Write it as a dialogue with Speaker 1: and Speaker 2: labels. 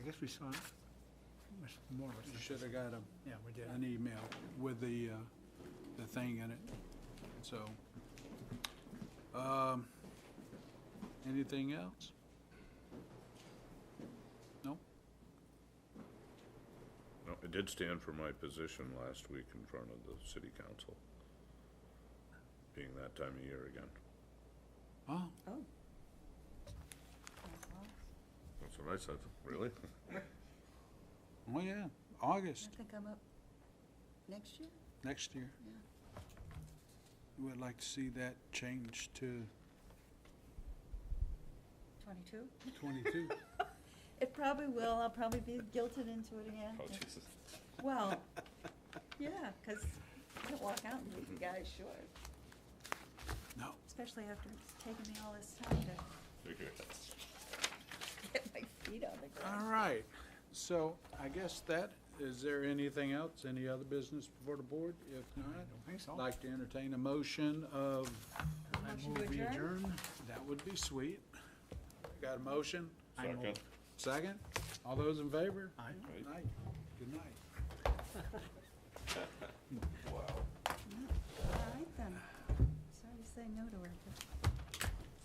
Speaker 1: guess we saw Mr. Morris.
Speaker 2: You should have got a-
Speaker 1: Yeah, we did.
Speaker 2: an email with the, uh, the thing in it, so. um, Anything else? No?
Speaker 3: No, I did stand for my position last week in front of the city council, being that time of year again.
Speaker 2: Oh,
Speaker 4: Oh.
Speaker 3: That's what I said. Really?
Speaker 2: oh yeah, August,
Speaker 4: I think I'm up next year?
Speaker 2: next year.
Speaker 4: Yeah.
Speaker 2: Would like to see that changed to
Speaker 4: Twenty-two?
Speaker 2: twenty-two.
Speaker 4: It probably will, I'll probably be guilted into it again.
Speaker 3: Oh, Jesus.
Speaker 4: Well, yeah, because I can walk out and leave you guys short,
Speaker 2: No,
Speaker 4: especially after it's taken me all this time to get my feet on the
Speaker 2: all
Speaker 4: ground.
Speaker 2: right, so I guess that, is there anything else, any other business before the board? If
Speaker 1: I
Speaker 2: not,
Speaker 1: don't think so.
Speaker 2: Like to entertain a motion of,
Speaker 1: I
Speaker 4: Motion to
Speaker 1: move we
Speaker 4: adjourn?
Speaker 1: adjourn.
Speaker 2: that would be sweet. Got a motion?
Speaker 1: I move.
Speaker 3: Second.
Speaker 2: Second? All those in favor?
Speaker 1: Aye.
Speaker 2: Aye. Good night.
Speaker 4: All right then, sorry to say no to her, but.